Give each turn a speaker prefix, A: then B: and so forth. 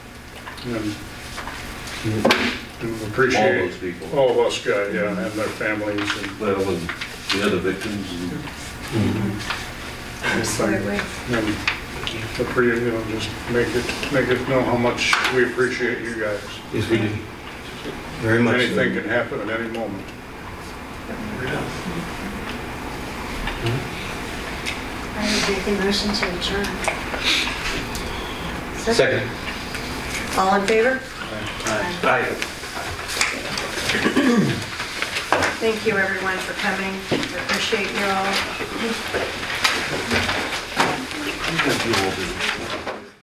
A: and do
B: all
A: Um, appreciate
B: those people.
A: all of us guys, yeah, and their families and,
B: Well, and the other victims, and
C: Absolutely.
A: and appre- you know, just make it, make it know how much we appreciate you guys.
D: Yes, we do. Very much. so.
A: Anything can happen at any moment.
C: I would make a motion to adjourn.
D: Second.
C: All in favor?
D: Aye.
C: Thank you, everyone, for coming. We Appreciate you all.
B: I think that's the old.